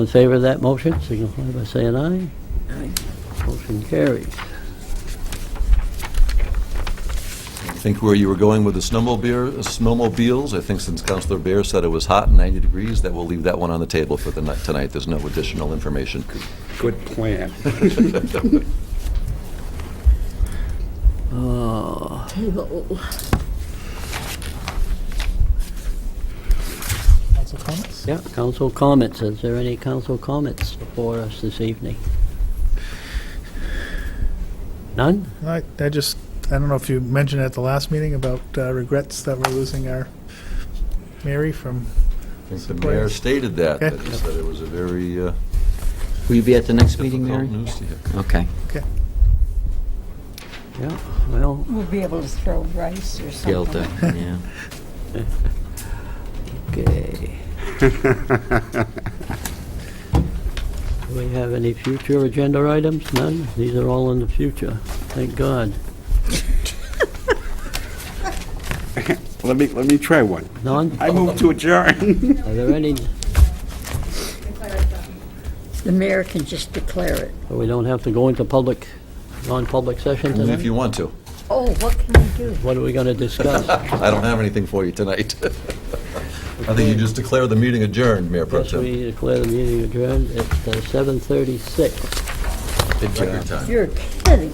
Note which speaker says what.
Speaker 1: In favor of that motion, signify by saying aye. Motion carries.
Speaker 2: I think where you were going with the snowmobile, snowmobiles, I think since Counselor Bear said it was hot and 90 degrees, that we'll leave that one on the table for the night, tonight. There's no additional information.
Speaker 3: Good plan.
Speaker 4: Table.
Speaker 5: Council comments?
Speaker 1: Yeah, council comments. Is there any council comments for us this evening? None?
Speaker 5: I, I just, I don't know if you mentioned at the last meeting about uh, regrets that we're losing our Mary from,
Speaker 2: I think the mayor stated that, that he said it was a very uh,
Speaker 6: Will you be at the next meeting,
Speaker 2: difficult
Speaker 6: Mary?
Speaker 2: news to hear.
Speaker 6: Okay.
Speaker 5: okay.
Speaker 1: Yeah, well,
Speaker 7: We'll be able to throw rice or something.
Speaker 6: Delta, yeah.
Speaker 1: okay. Do we have any future agenda items? None? These are all in the future. Thank God.
Speaker 3: Let me, let me try one.
Speaker 1: None?
Speaker 3: I move to adjourn.
Speaker 1: Are there any,
Speaker 7: The mayor can just declare it.
Speaker 1: so we don't have to go into public, non-public session
Speaker 2: If
Speaker 1: tonight?
Speaker 2: you want to.
Speaker 7: Oh, what can we do?
Speaker 1: What are we going to discuss?
Speaker 2: I don't have anything for you tonight. I think you just declare the meeting adjourned, Mayor Pro
Speaker 1: Yes,
Speaker 2: Tem.
Speaker 1: we declare the meeting adjourned at uh, 7:36.
Speaker 2: Record time.
Speaker 7: You're kidding.